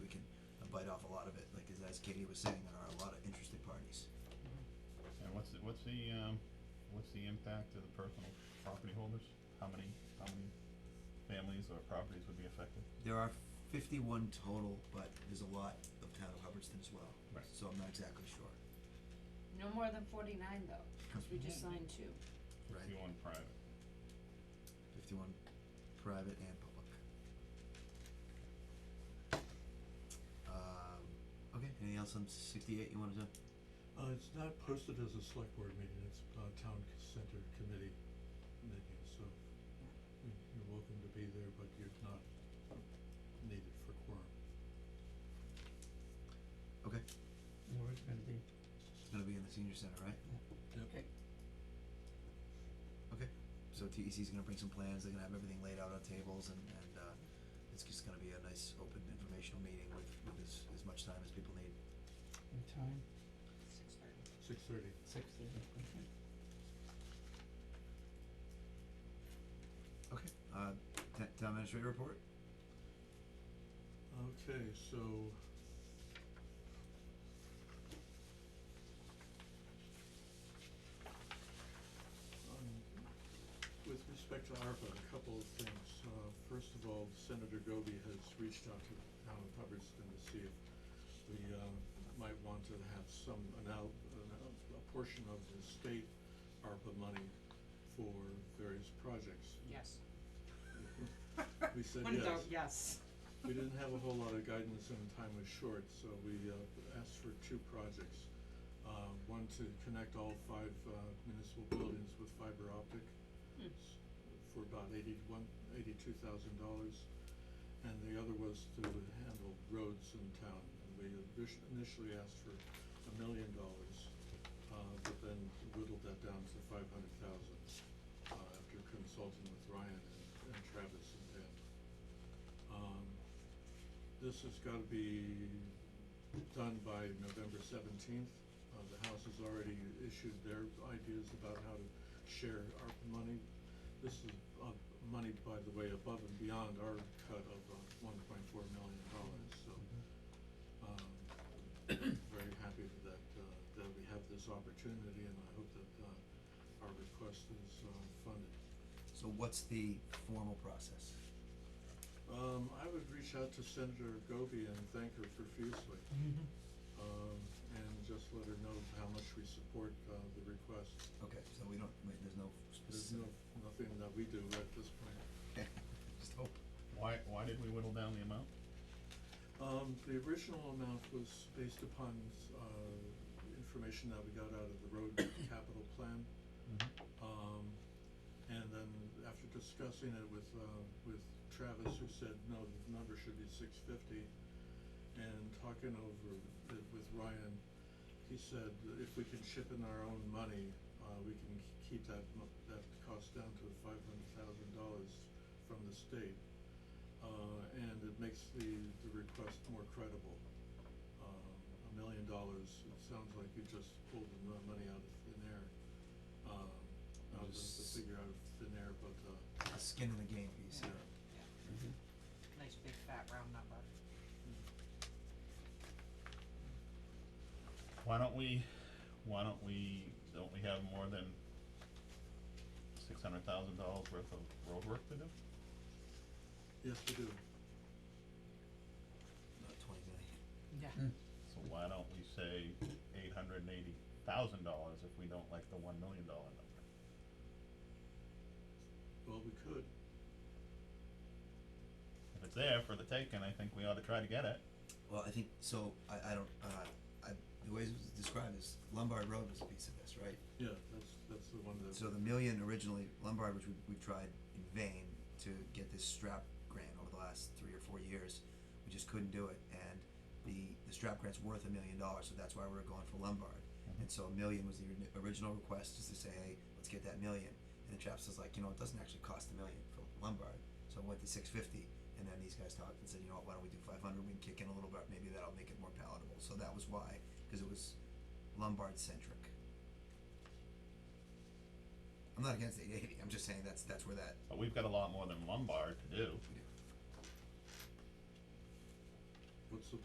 off a lot of it, like as, as Katie was saying, there are a lot of interested parties. And what's the, what's the, um, what's the impact to the personal property holders? How many, how many families or properties would be affected? There are fifty-one total, but there's a lot of town of Hubbardston as well. Right. So I'm not exactly sure. No more than forty-nine though, cause we just Yeah. signed two. Right. Fifty-one private. Fifty-one private and public. Um, okay, anything else on sixty-eight you wanted to, Uh, it's not posted as a select board meeting, it's uh town c- center committee meeting, so you- you're welcome to be there, but you're not needed for quorum. okay, Where it's gonna be. it's gonna be in the senior center, right? Yep. Okay, so TEC's gonna bring some plans, they're gonna have everything laid out on tables and, and, uh, it's just gonna be a nice, open, informational meeting with, with as, as much time as people need. In time, Six thirty. Six thirty. six thirty, okay. Okay, uh, ta- town administrator report? Okay, so. Um, with respect to ARPA, a couple of things. Uh, first of all, Senator Goby has reached out to the town of Hubbardston to see if we, um, might want to have some, an out, an out, a portion of the state ARPA money for various projects. Yes. We said One vote, yes. yes. We didn't have a whole lot of guidance and time was short, so we uh, asked for two projects. Uh, One to connect all five uh, municipal buildings with fiber optic Hmm. s- for about eighty-one, eighty-two thousand dollars. And the other was to handle roads in town. And We initi- initially asked for a million dollars, uh, but then whittled that down to five hundred thousand uh, after consulting with Ryan and- and Travis and Dan. Um, this has gotta be done by November seventeenth. Uh, the House has already issued their ideas about how to share ARPA money. This is, uh, money, by the way, above and beyond our cut of, uh, one point four million dollars, so, um, very happy that, uh, that we have this opportunity and I hope that, uh, our request is, uh, funded. So what's the formal process? Um, I would reach out to Senator Goby and thank her profusely, um, and just let her know how much we support, uh, the request. Okay, so we don't, wait, there's no There's specific. no, nothing that we do at this point. Just hope. Why, why did we whittle down the amount? Um, the original amount was based upon, uh, information that we got out of the road capital plan. Um, and then after discussing it with, uh, with Travis, who said, no, the number should be six fifty, and talking over it with Ryan, he said, if we can ship in our own money, uh, we can k- keep that mo- that cost down to five hundred thousand dollars from the state. Uh, and it makes the, the request more credible. Um, a million dollars, it sounds like you just pulled the mo- money out of thin air. Um, not the, the Just- figure out of thin air, but, uh, A Skin in the game piece, Yeah. yeah. Mm-hmm. Nice big fat round number. Why don't we, why don't we, don't we have more than six hundred thousand dollars worth of road work to do? yes, we do. Not twenty million. Yeah. So why don't we say eight hundred and eighty thousand dollars if we don't like the one million dollar number? Well, we could. If it's there for the taking, I think we ought to try to get it. Well, I think, so, I, I don't, uh, I, the way it was described is Lombard Road was a piece of this, right? Yeah, that's, that's the one that. So the million originally, Lombard, which we, we tried in vain to get this strap grant over the last three or four years, we just couldn't do it, and the, the strap grant's worth a million dollars, so that's why we were going for Lombard. And so a million was the ori- original request, just to say, hey, let's get that million, and the chaps was like, you know, it doesn't actually cost a million for Lombard, so I went to six fifty, and then these guys talked and said, you know what, why don't we do five hundred, we can kick in a little bit, maybe that'll make it more palatable, so that was why, cause it was Lombard centric. I'm not against eight eighty, I'm just saying that's, that's where that, But we've got a lot more than Lombard to do. we do.